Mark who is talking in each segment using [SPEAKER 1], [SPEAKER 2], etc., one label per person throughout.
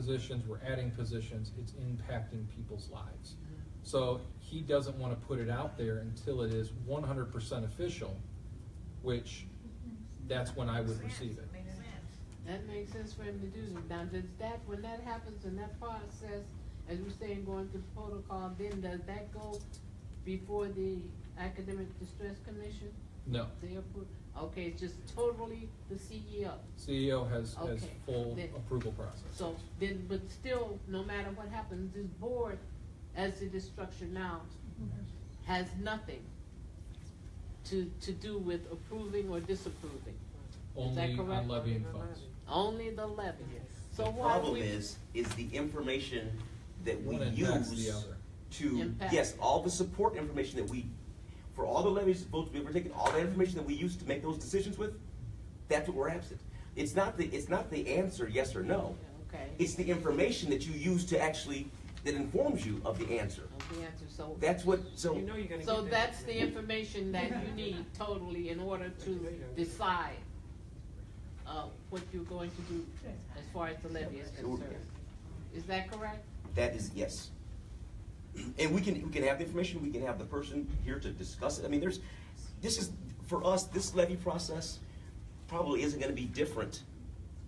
[SPEAKER 1] positions, we're adding positions, it's impacting people's lives. So he doesn't want to put it out there until it is one hundred percent official, which that's when I would receive it.
[SPEAKER 2] That makes sense for him to do. Now, does that, when that happens in that process, as we're saying, going through protocol, then does that go before the Academic Distress Commission?
[SPEAKER 1] No,
[SPEAKER 2] They approve, okay, it's just totally the E CEO.
[SPEAKER 1] CEO E has, has
[SPEAKER 2] Okay.
[SPEAKER 1] full
[SPEAKER 2] Then-
[SPEAKER 1] approval process.
[SPEAKER 2] So then, but still, no matter what happens, this board, as it is structured now, has nothing to, to do with approving or disapproving. Is that
[SPEAKER 1] Only
[SPEAKER 2] correct?
[SPEAKER 1] on levying funds.
[SPEAKER 2] Only the levy. So
[SPEAKER 3] The
[SPEAKER 2] why
[SPEAKER 3] problem
[SPEAKER 2] we?
[SPEAKER 3] is, is the information that we
[SPEAKER 1] One impacts the
[SPEAKER 3] use
[SPEAKER 1] other.
[SPEAKER 3] to,
[SPEAKER 2] Impact.
[SPEAKER 3] yes, all the support information that we, for all the levies votes we've ever taken, all the information that we use to make those decisions with, that's what we're absent. It's not the, it's not the answer, yes or no.
[SPEAKER 2] Okay.
[SPEAKER 3] It's the information that you use to actually, that informs you of the answer.
[SPEAKER 2] Of the answer, so.
[SPEAKER 3] That's what, so.
[SPEAKER 4] You know you're gonna
[SPEAKER 2] So
[SPEAKER 4] get that
[SPEAKER 2] that's the
[SPEAKER 4] information.
[SPEAKER 2] information that you need totally in order to decide, uh, what you're going to do as far as the levy is concerned. Is that correct?
[SPEAKER 3] That is, yes. And we can, we can have the information, we can have the person here to discuss it. I mean, there's, this is, for us, this levy process probably isn't gonna be different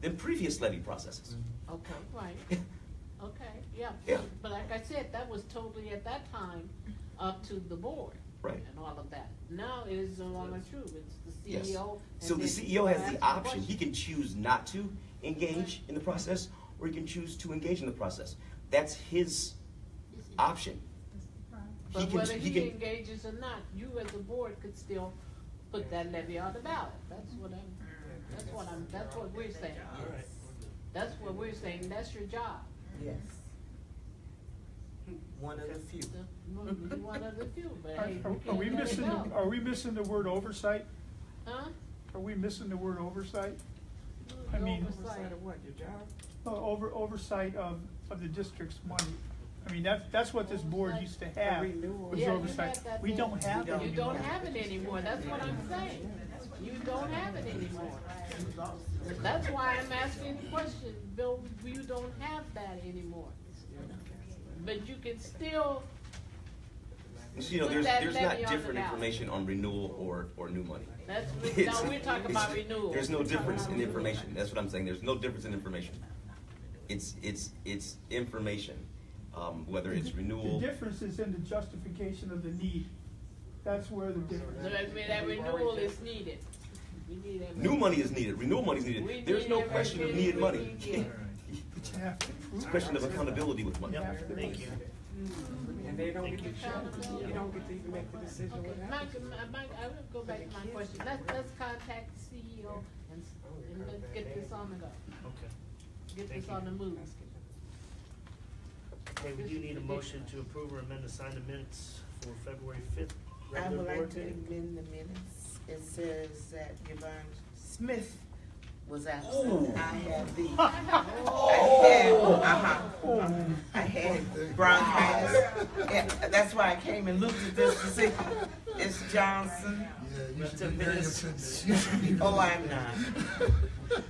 [SPEAKER 3] than previous levy processes.
[SPEAKER 2] Okay, right. Okay, yeah.
[SPEAKER 3] Yeah.
[SPEAKER 2] But like I said, that was totally at that time up to the board.
[SPEAKER 3] Right.
[SPEAKER 2] And all of that. Now it is no longer true. It's
[SPEAKER 3] Yes.
[SPEAKER 2] the CEO. and
[SPEAKER 3] So the
[SPEAKER 2] then
[SPEAKER 3] CEO has
[SPEAKER 2] ask
[SPEAKER 3] the option,
[SPEAKER 2] question.
[SPEAKER 3] he can choose not to engage in the process, or he can choose to engage in the process. That's his option. He
[SPEAKER 2] But
[SPEAKER 3] can,
[SPEAKER 2] whether
[SPEAKER 3] he
[SPEAKER 2] he
[SPEAKER 3] can,
[SPEAKER 2] engages or not, you as a board could still put that levy on the ballot. That's what I'm, that's what I'm, that's what we're saying. That's what we're saying. That's your job.
[SPEAKER 5] Yes. One of the few.
[SPEAKER 2] The- You're one of the few, but
[SPEAKER 6] Are
[SPEAKER 2] hey, you
[SPEAKER 6] are we
[SPEAKER 2] can't let it
[SPEAKER 6] missing, the-
[SPEAKER 2] go.
[SPEAKER 6] are we missing the word oversight?
[SPEAKER 2] Huh?
[SPEAKER 6] Are we missing the word oversight? I mean-
[SPEAKER 2] Oversight.
[SPEAKER 4] Oversight of what, your job?
[SPEAKER 6] Uh, Over, oversight of, of the district's money. I mean, that's, that's what this board used to have, was
[SPEAKER 2] Yeah, you
[SPEAKER 6] oversight.
[SPEAKER 2] had that
[SPEAKER 6] We
[SPEAKER 2] thing.
[SPEAKER 6] don't have that
[SPEAKER 2] You
[SPEAKER 6] anymore.
[SPEAKER 2] don't have it anymore, that's what I'm saying. You don't have it anymore. That's why I'm asking the question, Bill, you don't have that anymore. But you can still,
[SPEAKER 3] you know,
[SPEAKER 2] put
[SPEAKER 3] there's,
[SPEAKER 2] that
[SPEAKER 3] there's
[SPEAKER 2] levy
[SPEAKER 3] not
[SPEAKER 2] on the
[SPEAKER 3] different
[SPEAKER 2] ballot.
[SPEAKER 3] information on renewal or, or new money.
[SPEAKER 2] that's,
[SPEAKER 3] It's-
[SPEAKER 2] no, we're talking about
[SPEAKER 3] it's-
[SPEAKER 2] renewal.
[SPEAKER 3] There's no
[SPEAKER 2] We're talking
[SPEAKER 3] difference
[SPEAKER 2] about
[SPEAKER 3] in
[SPEAKER 2] renewal.
[SPEAKER 3] information, that's what I'm saying, there's no difference in information. It's, it's, it's information, um, whether it's renewal.
[SPEAKER 6] The difference is in the justification of the need. That's where the difference
[SPEAKER 2] So
[SPEAKER 6] is.
[SPEAKER 2] that mean that renewal is needed. We need that.
[SPEAKER 3] New money is needed, renewal money is
[SPEAKER 2] We
[SPEAKER 3] needed, there's
[SPEAKER 2] need
[SPEAKER 3] no
[SPEAKER 2] it,
[SPEAKER 3] question
[SPEAKER 2] we
[SPEAKER 3] of
[SPEAKER 2] need it,
[SPEAKER 3] needed
[SPEAKER 2] we
[SPEAKER 3] money.
[SPEAKER 2] need it.
[SPEAKER 6] But you have to prove
[SPEAKER 3] It's
[SPEAKER 6] it.
[SPEAKER 3] a question of accountability with money.
[SPEAKER 6] You have to-
[SPEAKER 4] Mm-hmm. And they don't get to choose, you don't get to even make the decision
[SPEAKER 2] Okay,
[SPEAKER 4] what
[SPEAKER 2] Mike,
[SPEAKER 4] happens.
[SPEAKER 2] my- Mike, I will go back to my question, let's, let's contact the CEO and, s- and let's get this on the go,
[SPEAKER 7] Okay.
[SPEAKER 2] get
[SPEAKER 7] Thank
[SPEAKER 2] this on the move.
[SPEAKER 7] Okay, we do need a motion to approve or amend the signed minutes for February fifth.
[SPEAKER 5] I
[SPEAKER 7] regular
[SPEAKER 5] would like
[SPEAKER 7] board
[SPEAKER 5] to
[SPEAKER 7] meeting.
[SPEAKER 5] amend the minutes. It says that Yvonne Smith was
[SPEAKER 3] Ooh.
[SPEAKER 7] Oh.
[SPEAKER 5] absent. I had the, I had,
[SPEAKER 7] Oh.
[SPEAKER 6] Oh,
[SPEAKER 5] uh-huh. I had bronchitis. Yeah, That's why I came and looked at this decision. It's Johnson.
[SPEAKER 8] Yeah, you should
[SPEAKER 5] To
[SPEAKER 8] be very
[SPEAKER 5] miss-
[SPEAKER 8] offended. You should be
[SPEAKER 5] Oh,
[SPEAKER 8] really
[SPEAKER 5] I'm not.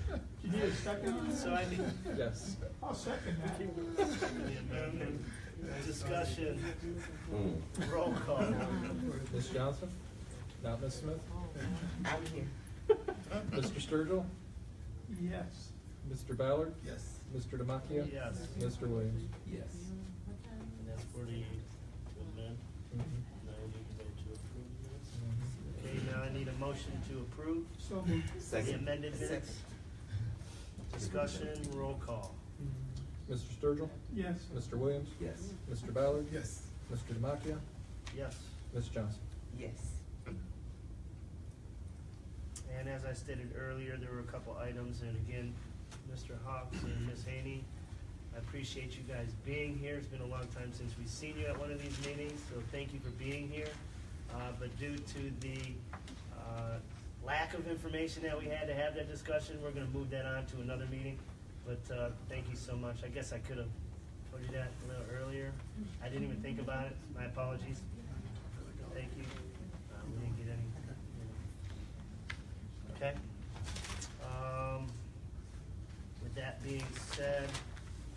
[SPEAKER 6] You need a second?
[SPEAKER 7] So I need,
[SPEAKER 1] Yes.
[SPEAKER 6] I'll second that.
[SPEAKER 7] the amendment.
[SPEAKER 8] offended.
[SPEAKER 7] discussion,
[SPEAKER 3] Mm.
[SPEAKER 7] roll call.
[SPEAKER 1] Ms. Johnson? Not Ms. Smith?
[SPEAKER 5] I'm here.
[SPEAKER 1] Mr. Sturgill?
[SPEAKER 6] Yes.
[SPEAKER 1] Mr. Ballard?
[SPEAKER 8] Yes.
[SPEAKER 1] Mr. Demakia?
[SPEAKER 7] Yes.
[SPEAKER 1] Mr. Williams?
[SPEAKER 8] Yes.
[SPEAKER 7] And that's for the, to amend,
[SPEAKER 1] Mhm.
[SPEAKER 7] now we need to vote to
[SPEAKER 1] Mm-hmm.
[SPEAKER 7] approve this. Okay, now I need a motion to approve
[SPEAKER 6] So moved.
[SPEAKER 7] the
[SPEAKER 3] Second.
[SPEAKER 7] amended minutes. Discussion, roll call.
[SPEAKER 1] Mr. Sturgill?
[SPEAKER 6] Yes.
[SPEAKER 1] Mr. Williams?
[SPEAKER 3] Yes.
[SPEAKER 1] Mr. Ballard?
[SPEAKER 8] Yes.
[SPEAKER 1] Mr. Demakia?
[SPEAKER 7] Yes,
[SPEAKER 1] Ms. Johnson?
[SPEAKER 5] Yes.
[SPEAKER 7] and as I stated earlier, there were a couple items, and again, Mr. Hawks and Ms. Haney, I appreciate you guys being here. It's been a long time since we've seen you at one of these meetings, so thank you for being here. Uh, but due to the, uh, lack of information that we had to have that discussion, we're gonna move that on to another meeting. But, uh, thank you so much. I guess I could have told you that a little earlier. I didn't even think about it. My apologies. Thank you. Uh, we didn't get any. Okay. Um, with that being said,